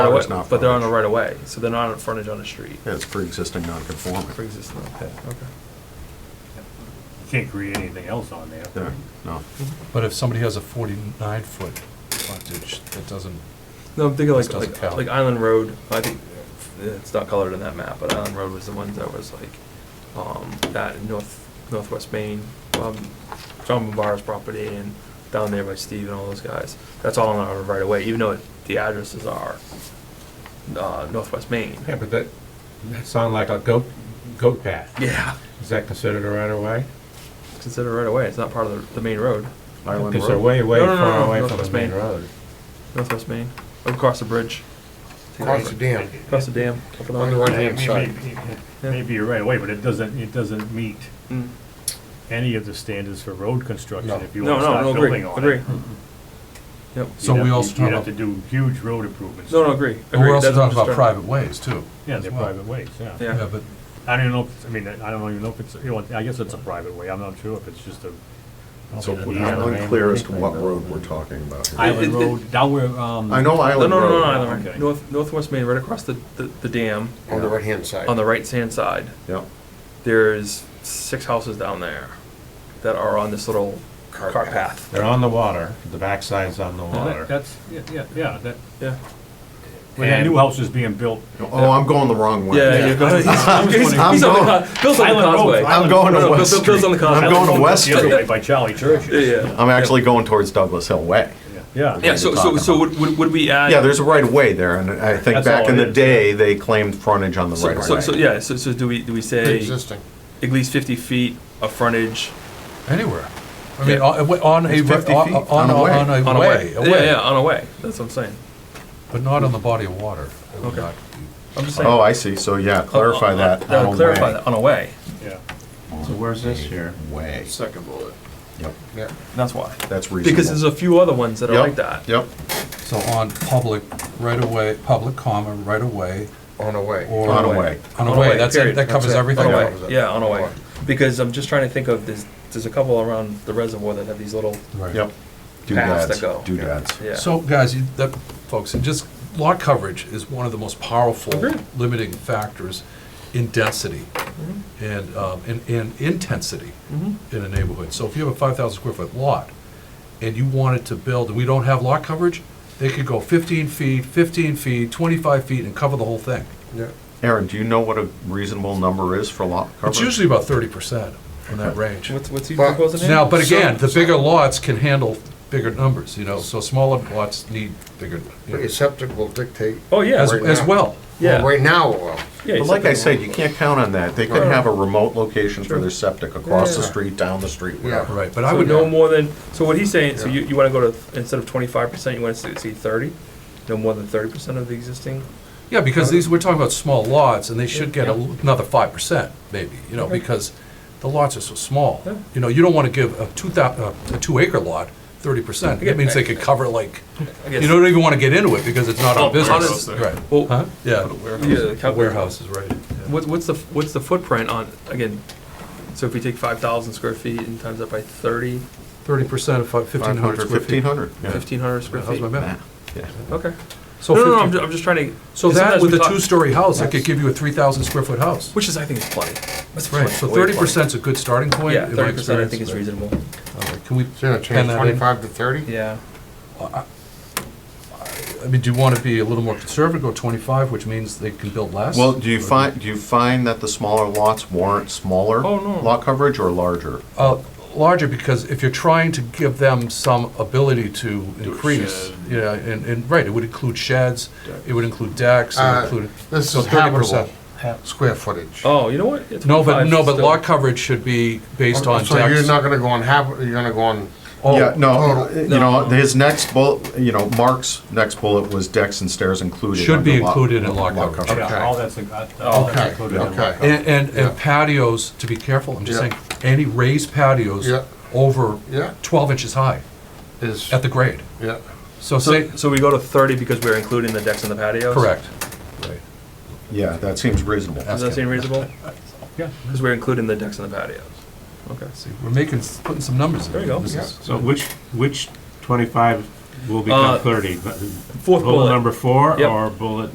right It's away- not But they're on the frontage. right of way, so they're not on frontage on the street. Yeah, it's pre-existing non-conforming. Pre-existing, okay, okay. You Can't create anything else on there. Yeah, no. Mhm. Mm-hmm. But if somebody has a forty-nine foot frontage, that doesn't, No, I'm thinking This like, doesn't like, count. like Island Road, I think, yeah, it's not colored in that map, but Island Road was the one that was like, um, that in north, northwest Maine, um, John Bombara's property and down there by Steve and all those guys. That's all on our right of way, even though it- the addresses are, uh, northwest Maine. Yeah, but that, that sound like a goat, goat path. Yeah, Is that considered a right of way? it's considered right of way, it's not part of the, the main road, Island Because they're Road. way, way No, no, no, far no, away no, from that's the main main. road. northwest Maine, across the bridge. Across the dam. Across the dam, up and On the over. right Yeah, hand side. maybe- Maybe you're right away, but it doesn't, it doesn't meet Mm. any of the standards for road construction No. if you No, want to no, start no, agree, building on it. agree. Yep. so You'd we have- also You'd talking have to about, do huge road improvements. No, no, agree. but we're agree. also That's what I'm talking about just private ways too. Yeah, as they're well. private ways, yeah. Yeah. Yeah, but I don't even know, if it's- I mean, I don't even know if it's, you know, I guess it's a private way, I'm not sure if it's just a. So Yeah, I'm Island unclear as to what road we're talking about here. I- It- Island it- Road, down where, um. I know No, no, Island no, no, Road. Island Road. Okay. North, northwest Maine, right across the, the, the dam, On the right hand side. on the right-hand side, Yep, there's six houses down there that are on this little cart path. They're on the water, the backside's on the Well, that- water. That's, yeah, yeah, yeah, that, Yeah. when that And- new house is being built. oh, I'm going the wrong way. Yeah, you're going, he's, he's on the, going- con- Bill's on the Island Road, causeway. Island I'm going No, to no, West Bill- Bill's Street. on the I'm continent. going to West The other way Street. by Charlie Yeah, Church. yeah. I'm actually going towards Douglas Hill Way. Yeah. Yeah, so, so, so would, would would we add? Yeah, there's a right of way there, and I think That's back all in it the is. day, they claimed frontage on the so- right So, of so, way. yeah, so, so do we, do we say Existing. at least fifty feet of frontage anywhere. I mean, Yeah. on, on a, It's 50 on, feet. on, On a way. on a on a way, way? a Yeah, yeah, way, on a way, that's what I'm saying. but not on the body of water. It would Okay. not- I'm just saying. Oh, I see, so yeah, clarify Uh, that. uh, on a Clarify way. that, on a way, Yeah. So where's this here? Way, Second bullet. yep, Yeah. that's why. that's reasonable. Because there's a few other ones that are Yep, like that. Yep, So on public right away, public comma, right away, On the way. or. on a way. On a On a way, way, that's it, period. that That's covers it. everything. On a Yeah. way, yeah, on a way. Because I'm just trying to think of, there's, there's a couple around the reservoir that have these little, Right. Yep. Paths that Doodads, go. doodads. yeah. So, guys, you, that, folks, and just, lot coverage is one of the most powerful Agreed. limiting factors in density and, um, and, and intensity Mhm. in a neighborhood. So if you have a five thousand square foot lot, and you wanted to build, and we don't have lot coverage, they could go fifteen feet, fifteen feet, twenty-five feet, and cover the whole thing. Yeah. Aaron, do you know what a reasonable number is for lot coverage? It's usually about thirty percent in that range. What's, what's he But- proposing here? Now, but again, So- the bigger lots can handle bigger numbers, you know, so smaller lots need bigger, you But know, your septic will dictate. Oh, yeah, as, right as now. well. yeah. Well, Right now, well, yeah, But he's like I looking- said, you can't count on that. They could Right. have a remote location for Sure. their septic, across the Yeah. street, down the street, Yeah. whatever. Right, but I So would no know, more than, so what he's saying, so Yeah. you, you wanna go to, instead of twenty-five percent, you wanna see see thirty? No more than thirty percent of the existing? yeah, because these, we're talking about small lots, and they should get a l- another five percent, maybe, you know, Okay. because the lots are so small. Yeah. You know, you don't wanna give a two thou, uh, a two acre lot thirty percent, Yeah. that means they could cover like, I guess- you don't even wanna get into it, because it's not Oh, our business, honest- right? Well, Huh? Yeah, Yeah, The cal- warehouses, right. What, what's the, what's the footprint on, again, so if we take five thousand square feet and times that by thirty, Thirty percent of fifteen hundred square feet. Fifteen hundred, yeah. fifteen hundred square How's feet? my math? Yeah. Okay. So no, no, no, I'm, 50 ju- I'm just trying to. So because that sometimes with we a talk- two-story house, that could give you a three thousand square foot house. Which is, I think, is plenty. That's Right, plenty. so Way thirty plenty. percent's a good starting point. Yeah, in my thirty percent I think experience. is reasonable. All right, Can we, so you're gonna Pen change that in. twenty-five to thirty? Yeah. I mean, do you want to be a little more conservative, go twenty-five, which means they can build less? Well, do you find, do you find that the smaller lots warrant smaller Oh, no. lot coverage or larger? Uh, larger, because if you're trying to give them some ability to increase, shed. yeah, and, and, right, it would include sheds, it would include decks, it would Uh, include. This so is 30%. habitable, ha- square footage. Oh, you know what? It's No, but, 25 no, but still. lot coverage should be based on decks. So you're not gonna go on habit, you're gonna go on, Oh, Yeah, no, total. you know, his next bullet, you know, Mark's next bullet was decks and stairs included. Should be under lot- included in lot coverage. Yeah, all that's, uh, all that's okay, included in okay. And, and- Yeah. and patios, to be careful, I'm just Yeah. saying, any raised patios Yeah. over Yeah. twelve inches high Is, at the grade. yeah, So say, So, so we go to thirty because we're including the decks and the patios? correct. Right. Yeah, that seems reasonable. Does that seem reasonable? Yeah. Because we're including the decks and the patios. Okay. See, we're making, putting some numbers in. There you go. This Yeah. is- So which, which twenty-five will Uh, become thirty. but- Fourth Bullet bullet. number four Yep. or bullet